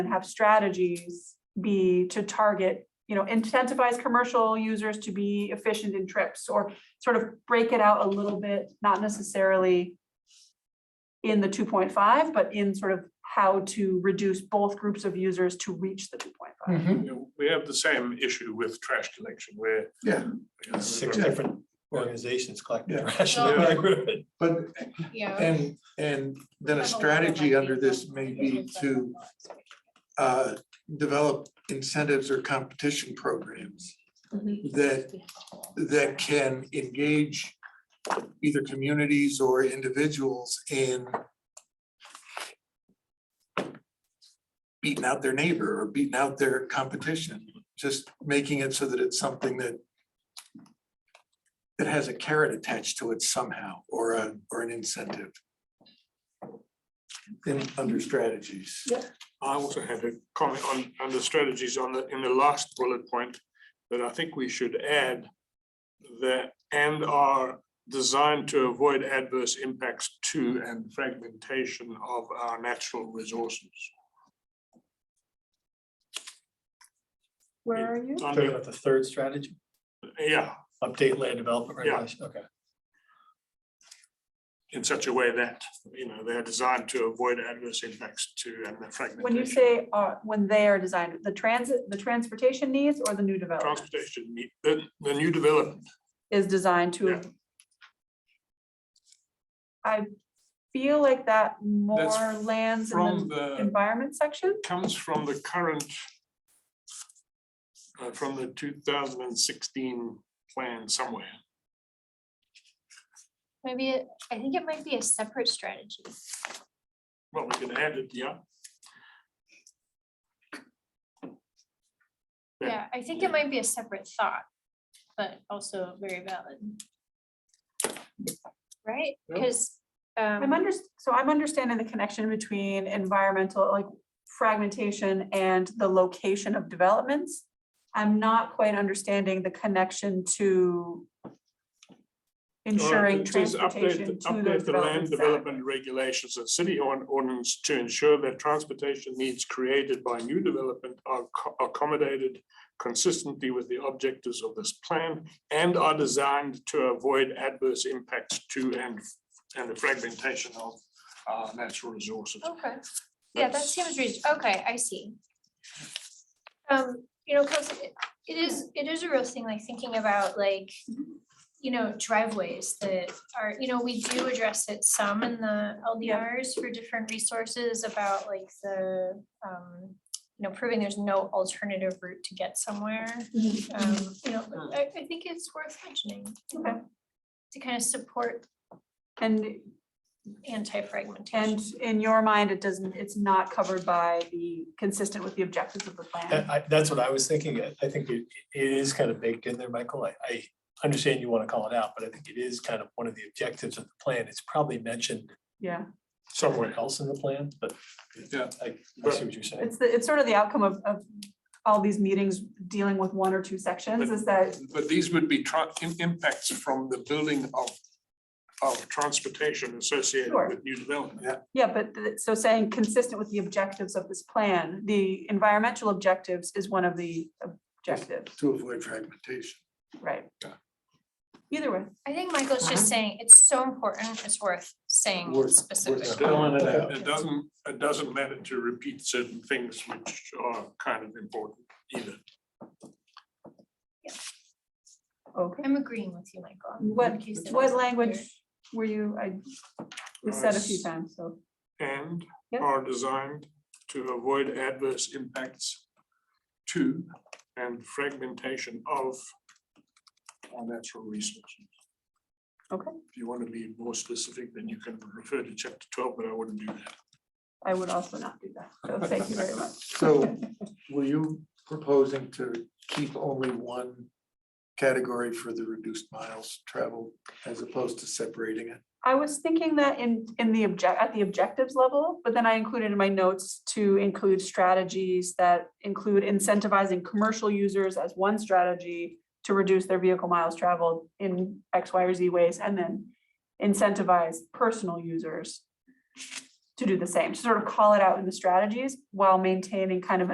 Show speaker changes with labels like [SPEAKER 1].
[SPEAKER 1] and have strategies be to target, you know, incentivize commercial users to be efficient in trips or sort of break it out a little bit, not necessarily in the two point five, but in sort of how to reduce both groups of users to reach the two point five.
[SPEAKER 2] Mhm.
[SPEAKER 3] You know, We have the same issue with trash collection where.
[SPEAKER 2] Yeah,
[SPEAKER 3] you know,
[SPEAKER 4] Six
[SPEAKER 3] we've got-
[SPEAKER 4] different organizations collecting
[SPEAKER 2] Yeah.
[SPEAKER 4] trash. in
[SPEAKER 5] Well-
[SPEAKER 4] the neighborhood.
[SPEAKER 2] but,
[SPEAKER 5] Yeah.
[SPEAKER 2] and, and then a strategy under this may be to uh, develop incentives or competition programs that, that can engage either communities or individuals in beating out their neighbor or beating out their competition, just making it so that it's something that that has a carrot attached to it somehow, or a, or an incentive. In, under strategies.
[SPEAKER 3] I also had a comment on, on the strategies on the, in the last bullet point, that I think we should add that and are designed to avoid adverse impacts to and fragmentation of our natural resources.
[SPEAKER 5] Where are you?
[SPEAKER 4] Talking
[SPEAKER 3] Under-
[SPEAKER 4] about the third strategy,
[SPEAKER 3] Yeah,
[SPEAKER 4] update land development
[SPEAKER 3] Yeah.
[SPEAKER 4] regulation, okay.
[SPEAKER 3] in such a way that, you know, they're designed to avoid adverse impacts to and the fragmentation.
[SPEAKER 1] When you say, uh, when they are designed, the transit, the transportation needs or the new development
[SPEAKER 3] Transportation, ne- the, the new development,
[SPEAKER 1] is designed to.
[SPEAKER 3] Yeah.
[SPEAKER 1] I feel like that more lands in
[SPEAKER 3] from
[SPEAKER 1] the
[SPEAKER 3] the.
[SPEAKER 1] environment section.
[SPEAKER 3] comes from the current uh, from the two thousand and sixteen plan somewhere.
[SPEAKER 5] Maybe, it- I think it might be a separate strategy.
[SPEAKER 3] Well, we can add it, yeah. Yeah.
[SPEAKER 5] Yeah, I think it might be a separate thought, but also very valid. Right? um,
[SPEAKER 3] Yeah.
[SPEAKER 5] Because.
[SPEAKER 1] I'm under, so I'm understanding the connection between environmental, like fragmentation and the location of developments. I'm not quite understanding the connection to ensuring
[SPEAKER 3] It says Uh, update
[SPEAKER 1] transportation to
[SPEAKER 3] the-
[SPEAKER 1] those uh,
[SPEAKER 3] Update the land
[SPEAKER 1] developments. that-
[SPEAKER 3] development regulations and city or- ordinance to ensure that transportation needs created by new development are co- accommodated consistently with the objectives of this plan and are designed to avoid adverse impacts to and and the fragmentation of uh, natural resources.
[SPEAKER 5] Okay, yeah, that
[SPEAKER 3] That's-
[SPEAKER 5] seems reasonable. Okay, I see. Um, you know, 'cause it- it is, it is a real thing, like thinking about like, you know, driveways that are, you know, we do address it some in the LDRs for different resources about like the, um, you know, proving there's no alternative route to get somewhere.
[SPEAKER 1] Mm-hmm.
[SPEAKER 5] Um, you know, but I, I think it's worth mentioning. you know, To kind of support
[SPEAKER 1] And,
[SPEAKER 5] anti-fragmentation.
[SPEAKER 1] and in your mind, it doesn't, it's not covered by the, consistent with the objectives of the
[SPEAKER 4] That-
[SPEAKER 1] plan.
[SPEAKER 4] I- that's what I was thinking. I I think it, it is kind of baked in there, Michael. I, I understand you want to call it out, but I think it is kind of one of the objectives of the plan. It's probably mentioned
[SPEAKER 1] Yeah,
[SPEAKER 4] somewhere else in the plan, but
[SPEAKER 2] Yeah.
[SPEAKER 4] I, I see what you're saying.
[SPEAKER 1] it's, the it's sort of the outcome of, of all these meetings dealing with one or two sections is that
[SPEAKER 3] But these would be tra- im- impacts from the building of of transportation associated
[SPEAKER 1] Sure.
[SPEAKER 3] with new development.
[SPEAKER 1] Yeah, but th- so saying consistent with the objectives of this plan, the environmental objectives is one of the objectives,
[SPEAKER 2] To avoid fragmentation.
[SPEAKER 1] right?
[SPEAKER 3] Yeah.
[SPEAKER 1] Either way,
[SPEAKER 5] I think Michael's
[SPEAKER 1] Uh-huh.
[SPEAKER 5] just saying it's so important, it's worth saying
[SPEAKER 2] Worth- worth
[SPEAKER 5] specifically.
[SPEAKER 2] spelling it out.
[SPEAKER 3] It doesn't, it doesn't matter to repeat certain things which are kind of important either.
[SPEAKER 1] okay.
[SPEAKER 5] I'm agreeing with you, Michael.
[SPEAKER 1] What,
[SPEAKER 5] In case that
[SPEAKER 1] what
[SPEAKER 5] wasn't
[SPEAKER 1] language
[SPEAKER 5] clear.
[SPEAKER 1] were you, I, we said a few times, so,
[SPEAKER 3] And
[SPEAKER 1] Yeah.
[SPEAKER 3] are designed to avoid adverse impacts to and fragmentation of our natural resources.
[SPEAKER 1] Okay.
[SPEAKER 3] If you want to be more specific, then you can refer to chapter twelve, but I wouldn't do that.
[SPEAKER 1] I would also not do that, so thank you very much.
[SPEAKER 2] So were you proposing to keep only one category for the reduced miles traveled as opposed to separating it?
[SPEAKER 1] I was thinking that in, in the object, at the objectives level, but then I included in my notes to include strategies that include incentivizing commercial users as one strategy to reduce their vehicle miles traveled in X, Y, or Z ways, and then incentivize personal users to do the same, to sort of call it out in the strategies while maintaining kind of an